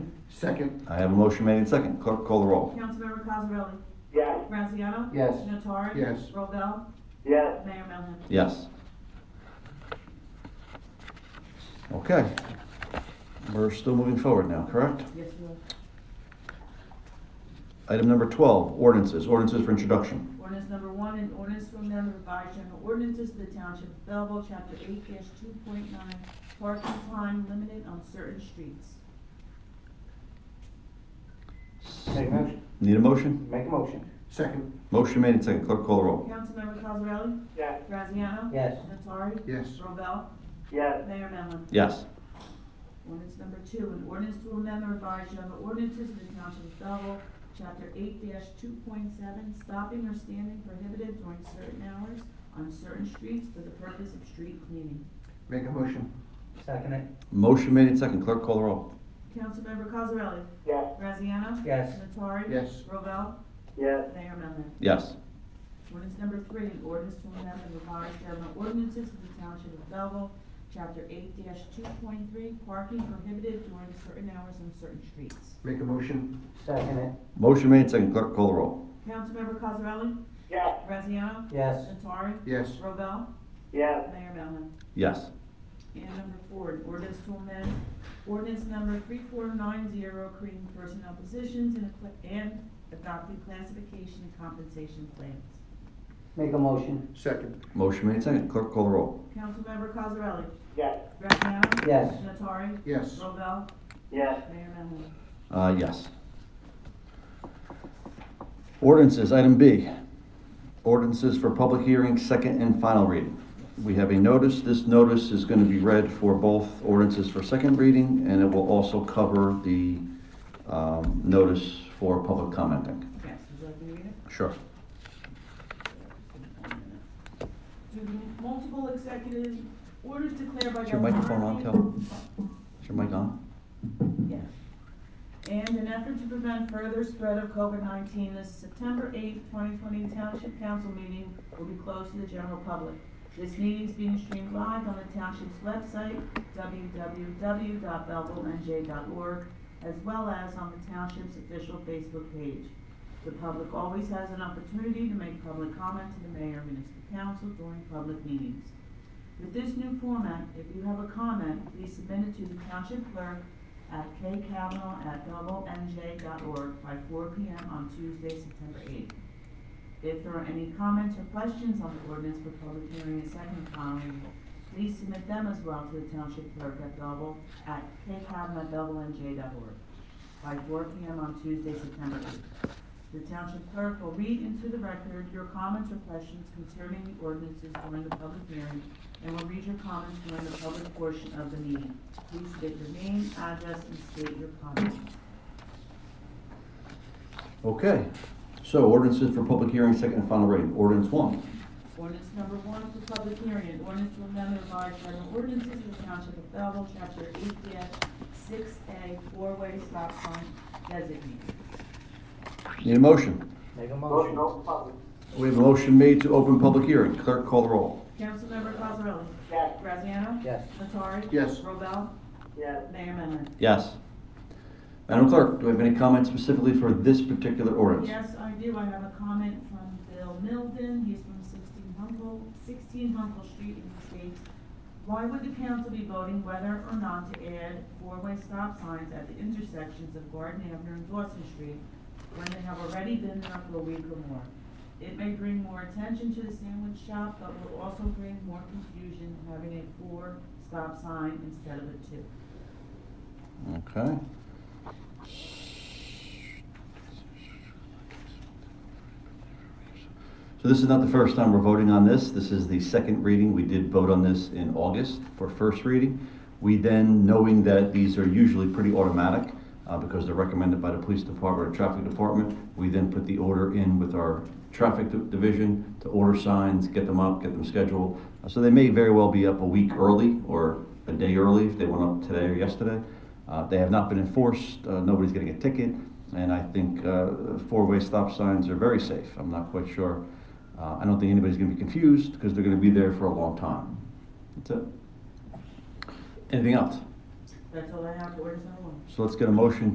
Second, I have a motion made in second. Clerk, call the roll. Councilmember Cosarelli? Yes. Graziano? yes. Natori? Yes. Robel? Yes. Mayor Melham? Yes. Okay. We're still moving forward now, correct? Yes, you will. Item number 12, ordinances. Ordinances for introduction. Ordinance number one, an ordinance to amend the revised general ordinances of the Township of Belleville, Chapter eight two point nine, parking time limited on certain streets. Make a motion, Need a motion? Make a motion. second, Motion made in second. Clerk, call the roll. Councilmember Cosarelli? Yes. Graziano? Yes. Natori? yes. Robel? Yes. Mayor Melham? Yes. Ordinance number two, an ordinance to amend the revised general ordinances of the Township of Belleville, Chapter eight two point seven, stopping or standing prohibited during certain hours on certain streets for the purpose of street cleaning. Make a motion, Second it. Motion made in second. Clerk, call the roll. Councilmember Cosarelli? Yes. Graziano? Yes. Natori? yes. Robel? Yes. Mayor Melham? Yes. Ordinance number three, an ordinance to amend the revised general ordinances of the Township of Belleville, Chapter eight two point three, parking prohibited during certain hours on certain streets. Make a motion, Second it. Motion made in second. Clerk, call the roll. Councilmember Cosarelli? Yes. Graziano? Yes. Natori? yes. Robel? Yes. Mayor Melham? Yes. And number four, an ordinance to amend ordinance number three four nine zero, creating personnel positions and acqui- and adopting classification and compensation plans. Make a motion. Second, Motion made in second. Clerk, call the roll. Councilmember Cosarelli? Yes. Graziano? Yes. Natori? yes. Robel? Yes. Mayor Melham? Uh, yes. Ordinances, item B. Ordinances for public hearing, second and final reading. We have a notice. This notice is going to be read for both ordinances for second reading, and it will also cover the um, notice for public commenting. Yes, would you like me to read it? Sure. To multiple executive orders declared by Is your Governor microphone on, Murphy- Kelvin? Is your mic on? Yes. And an effort to prevent further spread of COVID-19, this September 8th, 2020 Township Council meeting will be closed to the general public. This meeting is being streamed live on the township's website, www.belleville.nj.org, as well as on the township's official Facebook page. The public always has an opportunity to make public comment to the mayor and municipal council during public meetings. With this new format, if you have a comment, please submit it to the township clerk at kcavanaugh@doublenj.org by four PM on Tuesday, September eighth. If there are any comments or questions on the ordinance for public hearing and second and final reading, please submit them as well to the township clerk at double, at kcavanaugh@doublenj.org by four PM on Tuesday, September eighth. The township clerk will read into the record your comments or questions concerning the ordinances during the public hearing and will read your comments during the public portion of the meeting. Please state your name, address, and state your comment. Okay. So ordinances for public hearing, second and final reading. Ordinance one. Ordinance number one for public hearing, an ordinance to amend the revised general ordinances of the Township of Belleville, Chapter eight six A, four-way stop sign designated. Need a motion? Make a motion. We have a motion made to open public hearing. Clerk, call the roll. Councilmember Cosarelli? Yes. Graziano? Yes. Nattari? Yes. Robel? Yes. Mayor Mellon? Yes. Madam Clerk, do we have any comments specifically for this particular ordinance? Yes, I do. I have a comment from Bill Milton. He's from sixteen Humble, sixteen Humble Street in the States. Why would the council be voting whether or not to add four-way stop signs at the intersections of Garden Avenue and Dawson Street when they have already been there for a week or more? It may bring more attention to the sandwich shop, but will also bring more confusion having a four stop sign instead of a two. Okay. So this is not the first time we're voting on this. This is the second reading. We did vote on this in August for first reading. We then, knowing that these are usually pretty automatic, uh, because they're recommended by the police department or traffic department, we then put the order in with our traffic di- division to order signs, get them up, get them scheduled. Uh, So they may very well be up a week early or a day early if they went up today or yesterday. Uh, They have not been enforced, uh, nobody's getting a ticket, and I think uh, four-way stop signs are very safe. I'm not quite sure, uh, I don't think anybody's gonna be confused, because they're gonna be there for a long time. That's it. Anything else? That's all I have for ordinance number one. So let's get a motion